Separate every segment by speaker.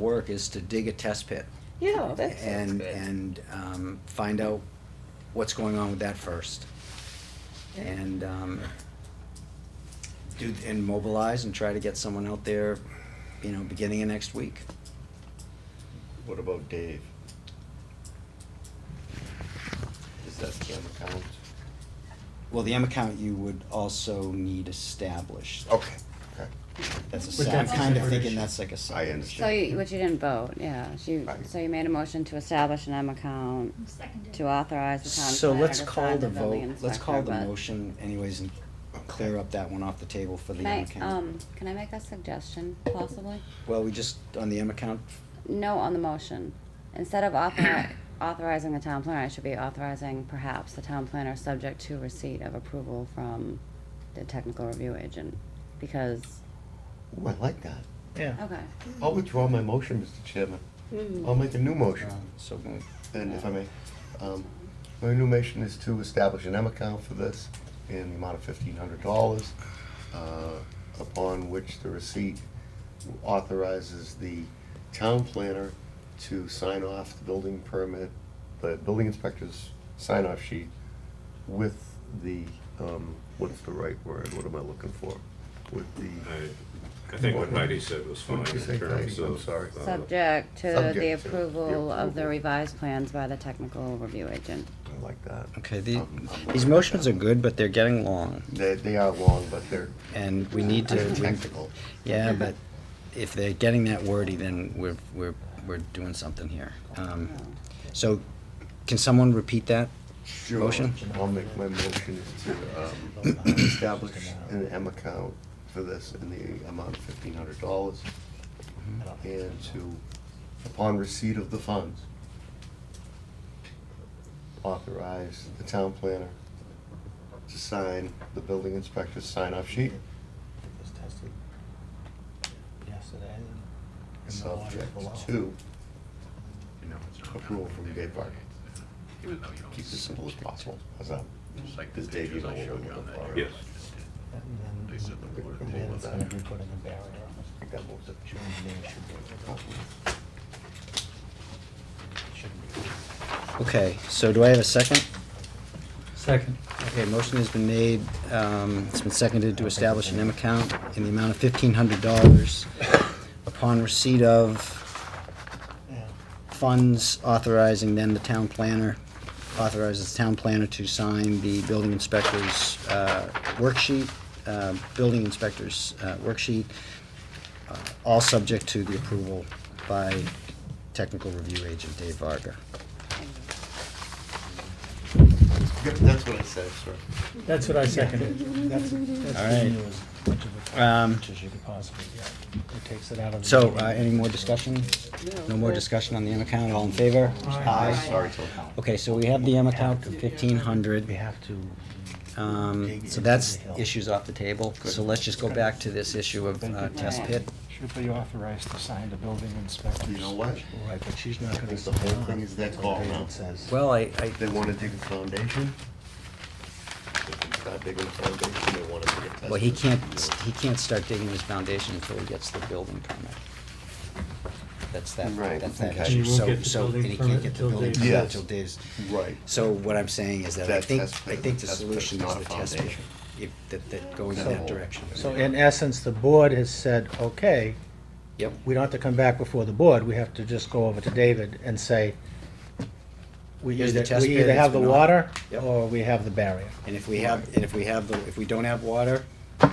Speaker 1: work is to dig a test pit
Speaker 2: Yeah, that's.
Speaker 1: and,
Speaker 3: good.
Speaker 1: and, um, find out what's going on with that first. And, um, do, and mobilize and try to get someone out there, you know, beginning of next week.
Speaker 4: What about Dave? Is that camera count?
Speaker 1: Well, the M account you would also need established.
Speaker 4: Okay, okay.
Speaker 1: That's a,
Speaker 5: But
Speaker 1: se- I'm
Speaker 5: that's a
Speaker 1: kind of
Speaker 5: separate
Speaker 1: thinking
Speaker 5: issue.
Speaker 1: that's like a
Speaker 4: I
Speaker 1: separate
Speaker 6: So
Speaker 4: understand.
Speaker 6: you, which you didn't vote, yeah, so you,
Speaker 4: Right.
Speaker 6: so you made a motion to establish an M account
Speaker 7: Seconded.
Speaker 6: to authorize the town
Speaker 1: So
Speaker 6: planner
Speaker 1: let's
Speaker 6: to
Speaker 1: call
Speaker 6: sign
Speaker 1: the
Speaker 6: the building
Speaker 1: vote,
Speaker 6: inspector,
Speaker 1: let's call the
Speaker 6: but-
Speaker 1: motion anyways and clear up that one off the table for the
Speaker 6: Can
Speaker 1: M
Speaker 6: I,
Speaker 1: account.
Speaker 6: um, can I make a suggestion possibly?
Speaker 1: Well, we just, on the M account,
Speaker 6: No on the motion. Instead of author- authorizing the town planner, I should be authorizing perhaps the town planner subject to receipt of approval from the technical review agent, because,
Speaker 4: Ooh, I like that.
Speaker 5: Yeah.
Speaker 6: okay.
Speaker 4: I'll withdraw my motion, Mr. Chairman.
Speaker 6: Hmm.
Speaker 2: Mm.
Speaker 4: I'll make a new motion.
Speaker 1: um, so moved.
Speaker 4: And if I may, um, my new motion is to establish an M account for this in the amount of fifteen hundred dollars, uh, upon which the receipt authorizes the town planner to sign off the building permit, the building inspector's sign-off sheet with the, um, what's the right word, what am I looking for? With the,
Speaker 8: I, I think what Heidi said was fine
Speaker 4: What did you say,
Speaker 8: in terms
Speaker 4: Heidi? I'm
Speaker 8: of.
Speaker 4: sorry.
Speaker 8: uh,
Speaker 6: Subject to
Speaker 4: Subject to
Speaker 6: the
Speaker 4: the
Speaker 6: approval of the
Speaker 4: approval.
Speaker 6: revised plans by the technical review agent.
Speaker 4: I like that.
Speaker 1: Okay, the,
Speaker 4: I'm- I'm
Speaker 1: these
Speaker 4: all right
Speaker 1: motions are
Speaker 4: with
Speaker 1: good, but they're getting long
Speaker 4: that. They, they are long, but they're
Speaker 1: and we need to. we-
Speaker 4: technical.
Speaker 1: Yeah, but if they're getting that wordy, then we're, we're, we're doing something here. Um, so can someone repeat that?
Speaker 4: Sure.
Speaker 1: Motion?
Speaker 4: I'll make my motion to um, establish an M account for this in the amount of fifteen hundred dollars and to, upon receipt of the funds, authorize the town planner to sign the building inspector's sign-off sheet,
Speaker 5: Yesterday.
Speaker 4: subject to approval from Dave Varga. Keep it as simple as possible. How's that? Does Dave, you know what we're looking for?
Speaker 8: Yes.
Speaker 5: And then.
Speaker 4: and then it's gonna be put
Speaker 5: a barrier.
Speaker 4: I think that moves it.
Speaker 1: Okay, so do I have a second?
Speaker 5: Second.
Speaker 1: Okay, motion has been made, um, it's been seconded to establish an M account in the amount of fifteen hundred dollars upon receipt of
Speaker 5: Yeah.
Speaker 1: funds authorizing then the town planner, authorizes the town planner to sign the building inspector's, uh, worksheet, uh, building inspector's, uh, worksheet, uh, all subject to the approval by technical review agent Dave Varga.
Speaker 4: Yep, that's what I said, sir.
Speaker 5: That's what I seconded. That's, that's
Speaker 1: All right.
Speaker 5: giving you as much of a
Speaker 1: Um,
Speaker 5: pitch as you could possibly get. It takes it out of. the-
Speaker 1: So, uh, any more discussion? No more
Speaker 2: Okay.
Speaker 1: discussion on the M account, all in favor?
Speaker 5: Aye.
Speaker 4: Sorry, Tom.
Speaker 1: Okay, so we have the M account of fifteen
Speaker 5: We
Speaker 1: hundred,
Speaker 5: uh, have to.
Speaker 1: um,
Speaker 5: dig
Speaker 1: so
Speaker 5: into
Speaker 1: that's
Speaker 5: the hill.
Speaker 1: issues off the table, so let's just go back to this issue of, uh, test pit.
Speaker 5: Should be authorized to sign the building inspectors.
Speaker 4: You know what?
Speaker 5: Right, but she's not
Speaker 4: I
Speaker 5: gonna.
Speaker 4: think the whole
Speaker 5: sign
Speaker 4: thing
Speaker 5: on
Speaker 4: is that
Speaker 5: what
Speaker 4: call
Speaker 5: David
Speaker 4: now.
Speaker 5: Says.
Speaker 1: Well, I, I,
Speaker 4: They wanna dig a foundation? They can start digging a foundation, they wanna dig a test.
Speaker 1: well, he
Speaker 4: pit.
Speaker 1: can't, he can't start digging his foundation until he gets the building permit. That's that,
Speaker 4: Right,
Speaker 1: that's that
Speaker 4: okay.
Speaker 1: issue,
Speaker 5: He won't
Speaker 1: so,
Speaker 5: get the
Speaker 1: so, and
Speaker 5: building
Speaker 1: he
Speaker 5: permit
Speaker 1: can't get the
Speaker 5: till
Speaker 1: building
Speaker 5: Dave's-
Speaker 1: permit
Speaker 4: Yes.
Speaker 1: until Dave's.
Speaker 4: Right.
Speaker 1: So what I'm saying is that I
Speaker 4: That
Speaker 1: think,
Speaker 4: test
Speaker 1: I
Speaker 4: pit-
Speaker 1: think the
Speaker 4: test pit's
Speaker 1: solution is
Speaker 4: not a
Speaker 1: the test pit,
Speaker 4: foundation.
Speaker 1: if, that, that going in
Speaker 4: So-
Speaker 1: that direction.
Speaker 5: So in essence, the board has said, okay,
Speaker 1: Yep,
Speaker 5: we don't have to come back before the board, we have to just go over to David and say, we
Speaker 1: Here's the
Speaker 5: either,
Speaker 1: test
Speaker 5: we
Speaker 1: pit,
Speaker 5: either
Speaker 1: it's
Speaker 5: have the
Speaker 1: been on.
Speaker 5: water,
Speaker 1: Yep.
Speaker 5: or we have the barrier.
Speaker 1: and if we have, and if we have, the if we don't have water,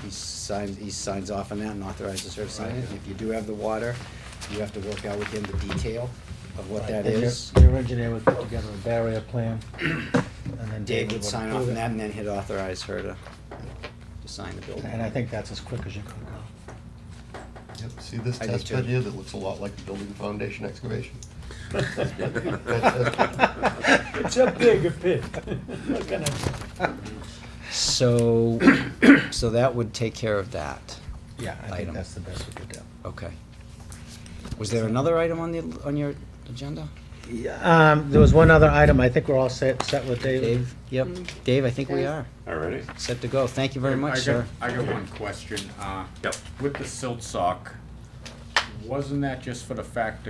Speaker 1: he signs, he signs off on that and authorizes her to sign it. If you do have the water, you have to work out with him the detail of what that
Speaker 5: And your-
Speaker 1: is.
Speaker 5: Your engineer would put together a barrier plan, and then
Speaker 1: Dave
Speaker 5: David
Speaker 1: would
Speaker 5: would
Speaker 1: sign off
Speaker 5: approve
Speaker 1: on that,
Speaker 5: it.
Speaker 1: and then he'd authorize her to, to sign the building.
Speaker 5: And I think that's as quick as you could go.
Speaker 4: Yep, see this
Speaker 1: I do
Speaker 4: test
Speaker 1: too.
Speaker 4: pit here that looks a lot like a building foundation excavation?
Speaker 5: It's a bigger pit.
Speaker 1: So, so that would take care of that.
Speaker 5: Yeah, I
Speaker 1: Item.
Speaker 5: think that's the best we could do.
Speaker 1: Okay. Was there another item on the, on your agenda?
Speaker 5: Yeah, um, there was one other item, I think we're all set, set with David.
Speaker 1: Dave? Yep. Dave, I think we are.
Speaker 8: All righty.
Speaker 1: Set to go. Thank you very
Speaker 9: I
Speaker 1: much,
Speaker 9: got-
Speaker 1: sir.
Speaker 9: I got one question. Uh,
Speaker 8: Yep.
Speaker 9: With the silt sock, Wasn't that just for the fact that